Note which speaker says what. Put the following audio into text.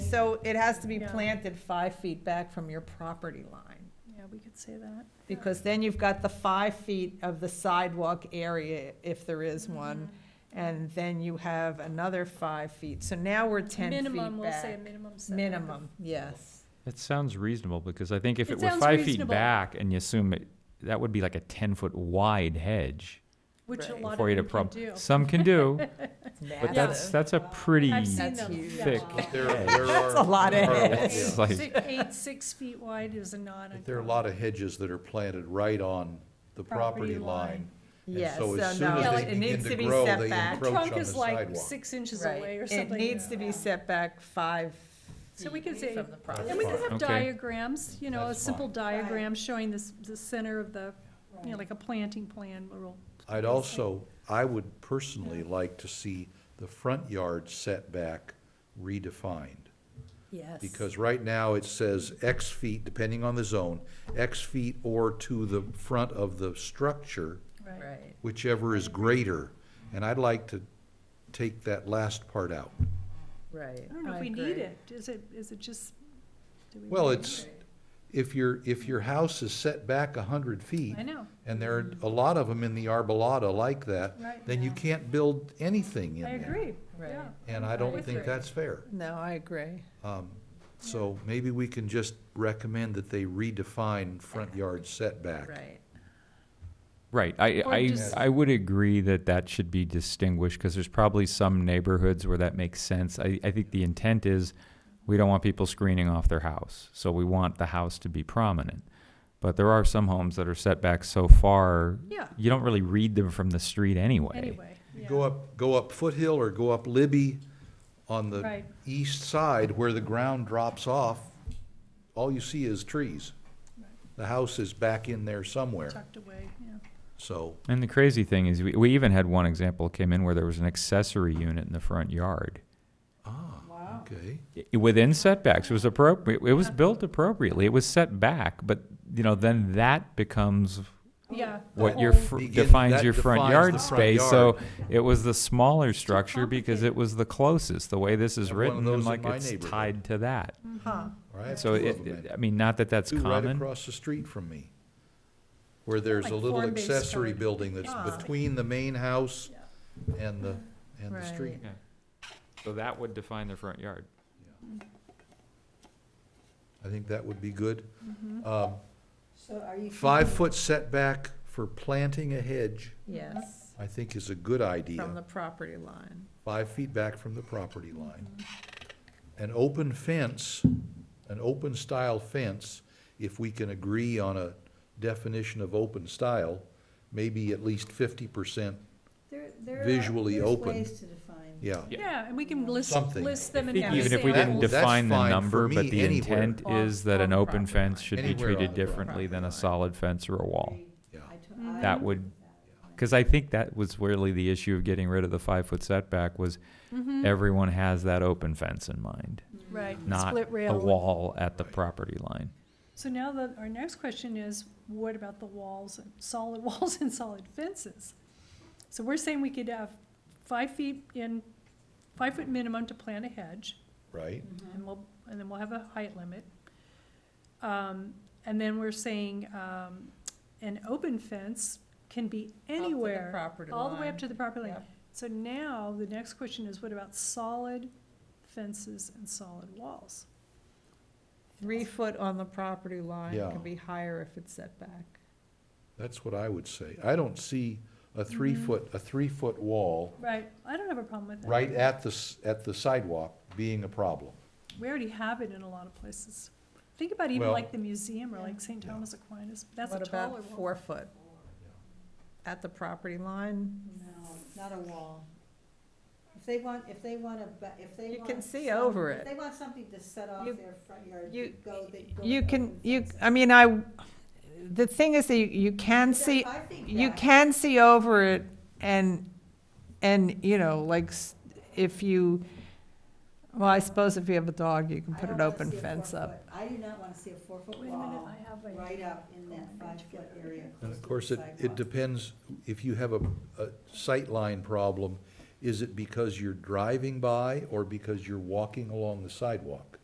Speaker 1: so it has to be
Speaker 2: Yeah.
Speaker 1: planted five feet back from your property line.
Speaker 2: Yeah, we could say that.
Speaker 1: Because then you've got the five feet of the sidewalk area, if there is
Speaker 2: Mm-hmm.
Speaker 1: one, and then you have another five feet. So now we're ten feet back.
Speaker 2: Minimum, we'll say minimum setback. of-
Speaker 1: Minimum, yes.
Speaker 3: That sounds reasonable, because I think if
Speaker 2: It
Speaker 3: it were
Speaker 2: sounds
Speaker 3: five feet
Speaker 2: reasonable.
Speaker 3: back and you assume it, that would be like a ten-foot wide hedge
Speaker 2: Which a
Speaker 1: Right.
Speaker 2: lot of
Speaker 3: for you to
Speaker 2: them can
Speaker 3: prob,
Speaker 2: do.
Speaker 3: some can do, but that's,
Speaker 2: Massive.
Speaker 3: that's a pretty,
Speaker 2: I've seen
Speaker 1: That's
Speaker 2: them.
Speaker 1: huge.
Speaker 2: yeah.
Speaker 3: thick.
Speaker 4: There,
Speaker 3: Yeah.
Speaker 4: there
Speaker 1: That's a
Speaker 4: are,
Speaker 1: lot of
Speaker 4: Yeah.
Speaker 1: it.
Speaker 3: it's
Speaker 2: Eight,
Speaker 3: like,
Speaker 2: six- eight, six feet wide is not uncommon.
Speaker 4: there are a lot of hedges that are planted right on the
Speaker 2: Property
Speaker 4: property
Speaker 2: line.
Speaker 4: line. And
Speaker 1: Yes,
Speaker 4: so as
Speaker 1: so
Speaker 4: soon
Speaker 2: no,
Speaker 4: as
Speaker 2: like,
Speaker 4: they
Speaker 2: it
Speaker 4: begin
Speaker 1: needs to
Speaker 4: to
Speaker 1: be
Speaker 4: grow,
Speaker 1: set
Speaker 4: they
Speaker 1: back.
Speaker 4: encroach on
Speaker 2: Trunk
Speaker 4: the
Speaker 2: is like
Speaker 4: sidewalk.
Speaker 2: six inches
Speaker 1: Right.
Speaker 2: away or something.
Speaker 1: It needs to be set back five
Speaker 2: So we
Speaker 1: feet
Speaker 2: could say-
Speaker 1: from the property.
Speaker 2: And we can have
Speaker 3: Okay.
Speaker 2: diagrams, you know, a
Speaker 4: That's
Speaker 2: simple
Speaker 4: fine.
Speaker 2: diagram showing this, the center of the, you know, like a planting plan, rural.
Speaker 4: I'd also, I would personally like to see the front yard setback redefined.
Speaker 1: Yes.
Speaker 4: Because right now it says X feet, depending on the zone, X feet or to the front of the structure,
Speaker 1: Right.
Speaker 4: whichever is greater. And I'd like to take that last part out.
Speaker 1: Right.
Speaker 2: I don't know if we need it. Is it, is it just? do we
Speaker 4: Well,
Speaker 2: need
Speaker 4: it's,
Speaker 2: it?
Speaker 4: if your, if your house is set back a hundred feet,
Speaker 2: I know,
Speaker 4: and there are a lot of them in the arbolata like that,
Speaker 2: Right.
Speaker 4: then you can't build anything in
Speaker 2: I
Speaker 4: there.
Speaker 2: agree,
Speaker 1: Right.
Speaker 2: yeah.
Speaker 4: And I
Speaker 1: I
Speaker 4: don't think
Speaker 1: agree.
Speaker 4: that's fair.
Speaker 1: No, I agree.
Speaker 4: Um, So maybe we can just recommend that they redefine front yard setback.
Speaker 1: Right.
Speaker 3: right, I,
Speaker 2: Or
Speaker 3: I,
Speaker 2: just-
Speaker 3: I would agree that that should be distinguished, because there's probably some neighborhoods where that makes sense. I, I think the intent is, we don't want people screening off their house, so we want the house to be prominent. But there are some homes that are set back so far,
Speaker 2: Yeah,
Speaker 3: you don't really read them from the street anyway.
Speaker 2: anyway,
Speaker 4: You
Speaker 2: yeah.
Speaker 4: Go up, go up Foothill or go up Libby on the
Speaker 2: Right.
Speaker 4: east side where the ground drops off, all you see is trees. The house is back in there somewhere,
Speaker 2: tucked away, yeah.
Speaker 4: so.
Speaker 3: And the crazy thing is, we, we even had one example came in where there was an accessory unit in the front yard.
Speaker 4: Ah, okay.
Speaker 3: I- Within setbacks, it was appropriate, it was built appropriately, it was set back, but, you know, then that becomes
Speaker 2: Yeah. the
Speaker 3: what your,
Speaker 2: whole-
Speaker 3: fr-
Speaker 4: Begin-
Speaker 3: defines
Speaker 4: that
Speaker 3: your front
Speaker 4: defines
Speaker 3: yard
Speaker 4: the front
Speaker 3: space, so
Speaker 4: yard.
Speaker 3: it was the smaller structure because
Speaker 2: complicated.
Speaker 3: it was the closest, the way this is
Speaker 4: Have one of
Speaker 3: written,
Speaker 4: those
Speaker 3: and
Speaker 4: in
Speaker 3: like
Speaker 4: my
Speaker 3: it's
Speaker 4: neighborhood.
Speaker 3: tied to that.
Speaker 1: Huh.
Speaker 4: All right,
Speaker 3: So
Speaker 4: two
Speaker 3: it,
Speaker 4: of 'em
Speaker 3: it-
Speaker 4: then.
Speaker 3: I mean, not that that's
Speaker 4: Two right
Speaker 3: common.
Speaker 4: across the street from me, where there's
Speaker 2: Like
Speaker 4: a little
Speaker 2: form-based
Speaker 4: accessory
Speaker 2: code.
Speaker 4: building that's
Speaker 1: Ah.
Speaker 4: between the main house
Speaker 2: Yeah.
Speaker 4: and the, and the
Speaker 1: Right.
Speaker 4: street.
Speaker 3: So that would define the front yard.
Speaker 4: I think that would be good.
Speaker 2: Mhm.
Speaker 4: Um,
Speaker 5: So are you?
Speaker 4: Five-foot setback for planting a hedge,
Speaker 1: Yes,
Speaker 4: I think is a good
Speaker 1: from
Speaker 4: idea,
Speaker 1: the property line.
Speaker 4: five feet back from the property line. An open fence, an open-style fence, if we can agree on a definition of open style, maybe at least fifty percent,
Speaker 5: There- there are-
Speaker 4: visually
Speaker 5: there's
Speaker 4: open.
Speaker 5: ways to define.
Speaker 4: yeah.
Speaker 3: Yeah.
Speaker 2: Yeah, and we can list,
Speaker 4: Something.
Speaker 2: list them
Speaker 3: I
Speaker 2: in
Speaker 3: think
Speaker 2: every
Speaker 3: even if we
Speaker 2: sample.
Speaker 3: didn't
Speaker 4: That- that's
Speaker 3: define the
Speaker 4: fine for
Speaker 3: number, but
Speaker 4: me
Speaker 3: the
Speaker 4: anywhere.
Speaker 3: intent
Speaker 1: On-
Speaker 3: is that an
Speaker 1: on
Speaker 3: open
Speaker 1: property
Speaker 3: fence
Speaker 1: line.
Speaker 3: should be
Speaker 4: Anywhere on
Speaker 3: treated
Speaker 4: the property
Speaker 3: differently than
Speaker 4: line.
Speaker 3: a solid fence or a wall.
Speaker 4: Yeah.
Speaker 5: I to-
Speaker 1: Mm-hmm.
Speaker 2: Mhm.
Speaker 5: I
Speaker 3: That
Speaker 5: agree
Speaker 3: would-
Speaker 5: with that.
Speaker 3: Because I think that was really the issue of getting rid of the five-foot setback was
Speaker 4: Mm-hmm.
Speaker 2: Mhm.
Speaker 3: everyone has that open fence in mind,
Speaker 5: Mm-hmm.
Speaker 2: Right,
Speaker 3: not
Speaker 2: split
Speaker 3: a
Speaker 2: rail.
Speaker 3: wall at the
Speaker 4: Right.
Speaker 3: property line.
Speaker 2: So now the, our next question is, what about the walls, and solid walls and solid fences? So we're saying we could have five feet in, five foot minimum to plant a hedge,
Speaker 4: Right?
Speaker 5: Mm-hmm.
Speaker 2: and we'll, and then we'll have a height limit. Um, and then we're saying, um, an open fence can be anywhere. All the way up to the property line.
Speaker 1: Yep.
Speaker 2: So now, the next question is, what about solid fences and solid walls?
Speaker 1: Three foot on the property line
Speaker 4: Yeah.
Speaker 1: can be higher if it's set back.
Speaker 4: That's what I would say. I don't see a three-foot, a three-foot wall
Speaker 2: Right, I don't have a problem with that.
Speaker 4: right at the, s- at the sidewalk being a problem.
Speaker 2: We already have it in a lot of places. Think about even
Speaker 4: Well-
Speaker 2: like the museum or like St.
Speaker 4: Yeah.
Speaker 2: Thomas Aquinas, that's a
Speaker 1: What
Speaker 2: taller
Speaker 1: about
Speaker 2: wall.
Speaker 1: four foot? At the property line?
Speaker 5: No, not a wall. If they want, if they want a, ba- if they want.
Speaker 1: You can see
Speaker 5: some-
Speaker 1: over
Speaker 5: if
Speaker 1: it.
Speaker 5: they want something to set off
Speaker 1: You-
Speaker 5: their front yard,
Speaker 1: you-
Speaker 5: go, they go.
Speaker 1: You
Speaker 5: with
Speaker 1: can,
Speaker 5: open
Speaker 1: you,
Speaker 5: fences.
Speaker 1: I mean, I, the thing is that you- you can
Speaker 5: They're
Speaker 1: see,
Speaker 5: five feet
Speaker 1: you
Speaker 5: back.
Speaker 1: can see over it and, and, you know, like, s- if you, well, I suppose if you have a dog, you can
Speaker 5: I
Speaker 1: put
Speaker 5: don't
Speaker 1: an
Speaker 5: wanna
Speaker 1: open
Speaker 5: see a
Speaker 1: fence
Speaker 5: four-foot-
Speaker 1: up.
Speaker 5: I do not want to see a four-foot
Speaker 2: Wait a minute,
Speaker 5: wall
Speaker 2: I have my-
Speaker 5: right up in that five-foot area.
Speaker 4: And
Speaker 5: close
Speaker 4: of
Speaker 5: to the
Speaker 4: course, it, it
Speaker 5: sidewalk.
Speaker 4: depends, if you have a, a sightline problem, is it because you're driving by or because you're walking along the sidewalk?